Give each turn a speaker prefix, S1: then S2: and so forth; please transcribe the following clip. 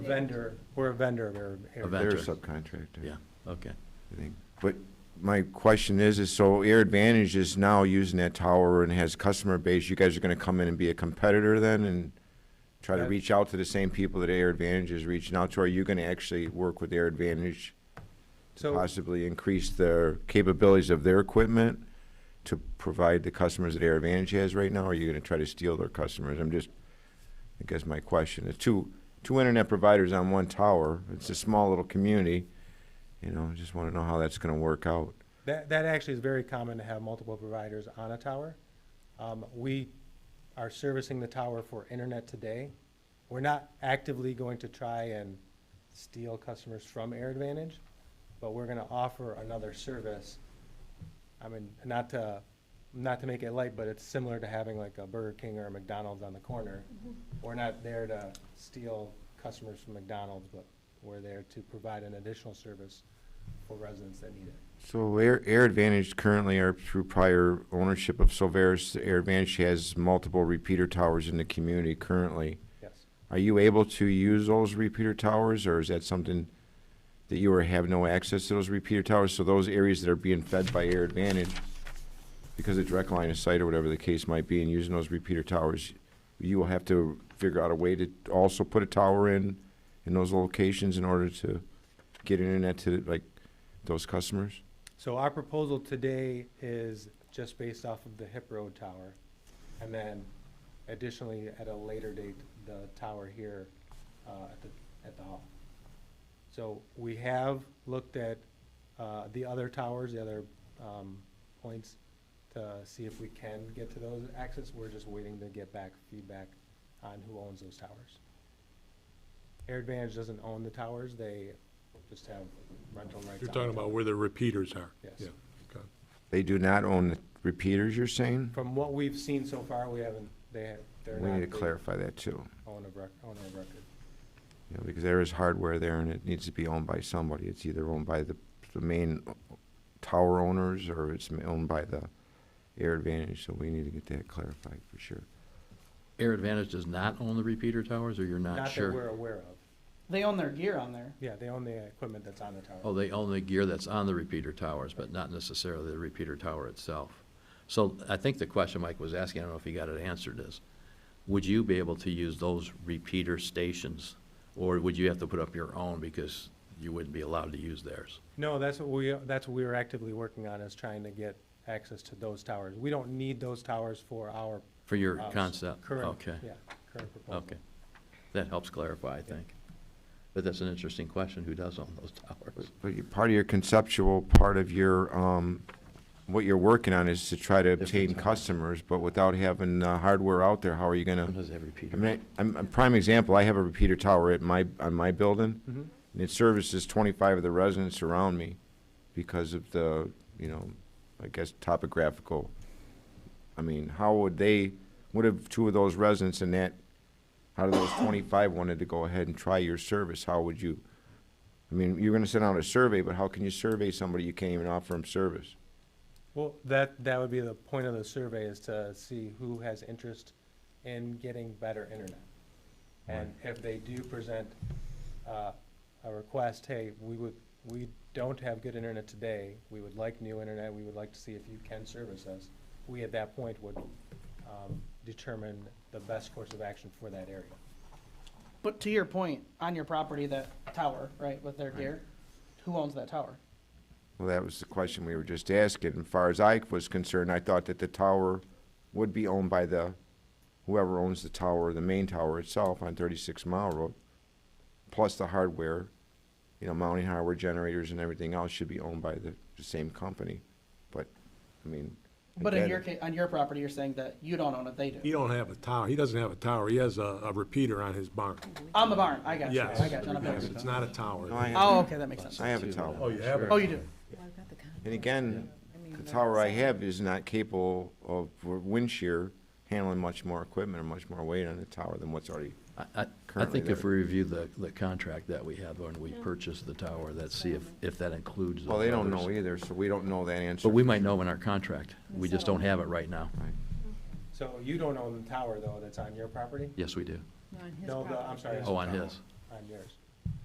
S1: vendor, we're a vendor of Air-
S2: A
S1: Air.
S2: vendor.
S3: They're a subcontractor.
S2: Yeah, okay.
S3: I think. But my question is, is so Air Advantage is now using that tower and has customer base. You guys are gonna come in and be a competitor then and try to
S1: That-
S3: reach out to the same people that Air Advantage is reaching out to? Are you gonna actually work with Air Advantage to
S1: So,
S3: possibly increase their capabilities of their equipment to provide the customers that Air Advantage has right now? Or are you gonna try to steal their customers? I'm just, I guess my question is two, two internet providers on one tower. It's a small little community. You know, I just wanna know how that's gonna work out.
S1: that, that actually is very common to have multiple providers on a tower. Um, we are servicing the tower for internet today. We're not actively going to try and steal customers from Air Advantage, but we're gonna offer another service. I mean, not to, not to make it light, but it's similar to having like a Burger King or a McDonald's on the corner. We're not there to steal customers from McDonald's, but we're there to provide an additional service for residents that need it.
S3: So Air, Air Advantage currently are through prior ownership of Silveris. Air Advantage has multiple repeater towers in the community currently.
S1: Yes.
S3: Are you able to use those repeater towers, or is that something that you or have no access to those repeater towers? So those areas that are being fed by Air Advantage, because of direct line of sight or whatever the case might be, and using those repeater towers, you will have to figure out a way to also put a tower in, in those locations in order to get internet to, like, those customers?
S1: So our proposal today is just based off of the Hip Road Tower. And then additionally, at a later date, the tower here uh, at the, at the hall. So we have looked at uh, the other towers, the other um, points, to see if we can get to those access. We're just waiting to get back feedback on who owns those towers. Air Advantage doesn't own the towers, they just have rental rights.
S4: You're
S1: on
S4: talking
S1: the
S4: about
S1: towers.
S4: where the repeaters are?
S1: Yes.
S4: Yeah, okay.
S3: They do not own the repeaters, you're saying?
S1: From what we've seen so far, we haven't, they have, they're
S3: We
S1: not
S3: need to
S1: the
S3: clarify that, too.
S1: owner of rec- owner of record.
S3: you know, because there is hardware there and it needs to be owned by somebody. It's either owned by the, the main tower owners or it's ma- owned by the Air Advantage, so we need to get that clarified for sure.
S2: Air Advantage does not own the repeater towers, or you're not
S1: Not that we're
S2: sure?
S1: aware of.
S5: They own their gear on there.
S1: Yeah, they own the equipment that's on the
S2: Oh,
S1: tower.
S2: they own the gear that's on the repeater towers, but not necessarily the repeater tower itself. So I think the question Mike was asking, I don't know if he got it answered, is, would you be able to use those repeater stations? Or would you have to put up your own because you wouldn't be allowed to use theirs?
S1: No, that's what we, that's what we are actively working on, is trying to get access to those towers. We don't need those towers for our.
S2: For your
S1: uh, s-
S2: concept?
S1: Current,
S2: Okay.
S1: yeah, current proposal.
S2: Okay. That helps clarify, I think. But that's an interesting question, who does own those towers?
S3: But you, part of your conceptual, part of your, um, what you're working on is to try to obtain customers, but without having the hardware out there, how are you
S2: Who
S3: gonna?
S2: does that
S3: I
S2: repeater?
S3: mean, I- I'm, a prime example, I have a repeater tower at my, on my building.
S1: Mhm.
S3: And it services twenty-five of the residents around me because of the, you know, I guess topographical. I mean, how would they, what if two of those residents in that, how do those twenty-five wanted to go ahead and try your service, how would you? I mean, you're gonna send out a survey, but how can you survey somebody you can't even offer them service?
S1: Well, that, that would be the point of the survey, is to see who has interest in getting better internet. And if they do present, uh, a request, hey, we would, we don't have good internet today, we would like new internet, we would like to see if you can service us, we at that point would, um, determine the best course of action for that area.
S5: But to your point, on your property, that tower, right, with their gear, who owns that tower?
S3: Well, that was the question we were just asking. As far as I was concerned, I thought that the tower would be owned by the, whoever owns the tower, the main tower itself on thirty-six mile road, plus the hardware, you know, mounting hardware generators and everything else should be owned by the, the same company. But, I mean.
S5: But in
S3: again,
S5: your ca- on your property, you're saying that you don't own it, they
S4: He
S5: do.
S4: don't have a tower, he doesn't have a tower, he has a, a repeater on his barn.
S5: On the barn, I got you,
S4: Yes.
S5: I got you. on a
S4: Yes,
S5: barn.
S4: It's not a tower.
S3: No, I have-
S5: Oh, okay, that makes sense.
S3: I have a tower.
S4: Oh, you have
S5: Oh,
S4: it?
S5: you do?
S6: Well, I've got the con-
S3: And again,
S6: I mean,
S3: the
S6: the-
S3: tower I have is not capable of, for wind shear, handling much more equipment or much more weight on the tower than what's already
S2: I- I, I
S3: Currently
S2: think if
S3: there.
S2: we review the, the contract that we have when we purchased the tower, let's see if, if that includes.
S3: Well,
S2: those
S3: they don't
S2: others.
S3: know either, so we don't know that answer.
S2: But we might know in our contract. We just don't
S6: Settlement.
S2: have it right now.
S3: Right.
S1: So you don't own the tower, though, that's on your property?
S2: Yes, we do.
S6: No, on his
S1: No, the- I'm
S6: property.
S1: sorry.
S2: Oh, on his.
S1: on yours.